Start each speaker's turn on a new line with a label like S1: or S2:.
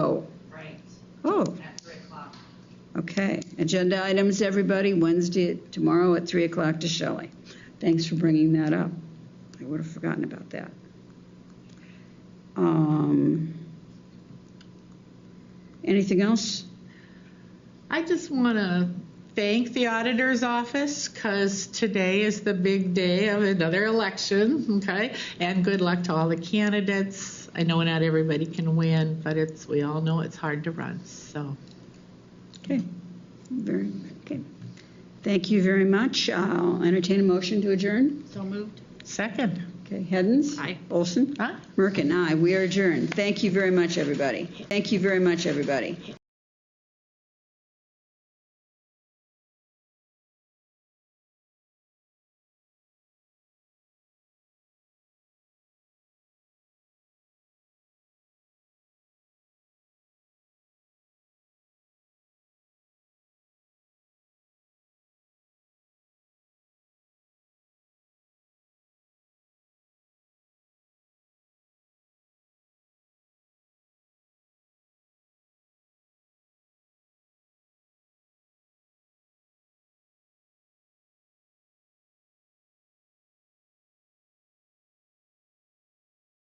S1: Oh, Okay, agenda items, everybody, Wednesday, tomorrow at 3 o'clock to Shelley. Thanks for bringing that up. I would have forgotten about that. Um, Anything else?
S2: I just want to thank the auditor's office because today is the big day of another election, okay? And good luck to all the candidates. I know not everybody can win, but it's, we all know it's hard to run, so.
S1: Okay, very, okay. Thank you very much. I'll entertain a motion to adjourn.
S3: So moved.
S2: Second.
S1: Okay, Heddens?
S2: Aye.
S1: Olson?
S2: Huh?
S1: Merkin, aye. We are adjourned. Thank you very much, everybody. Thank you very much, everybody.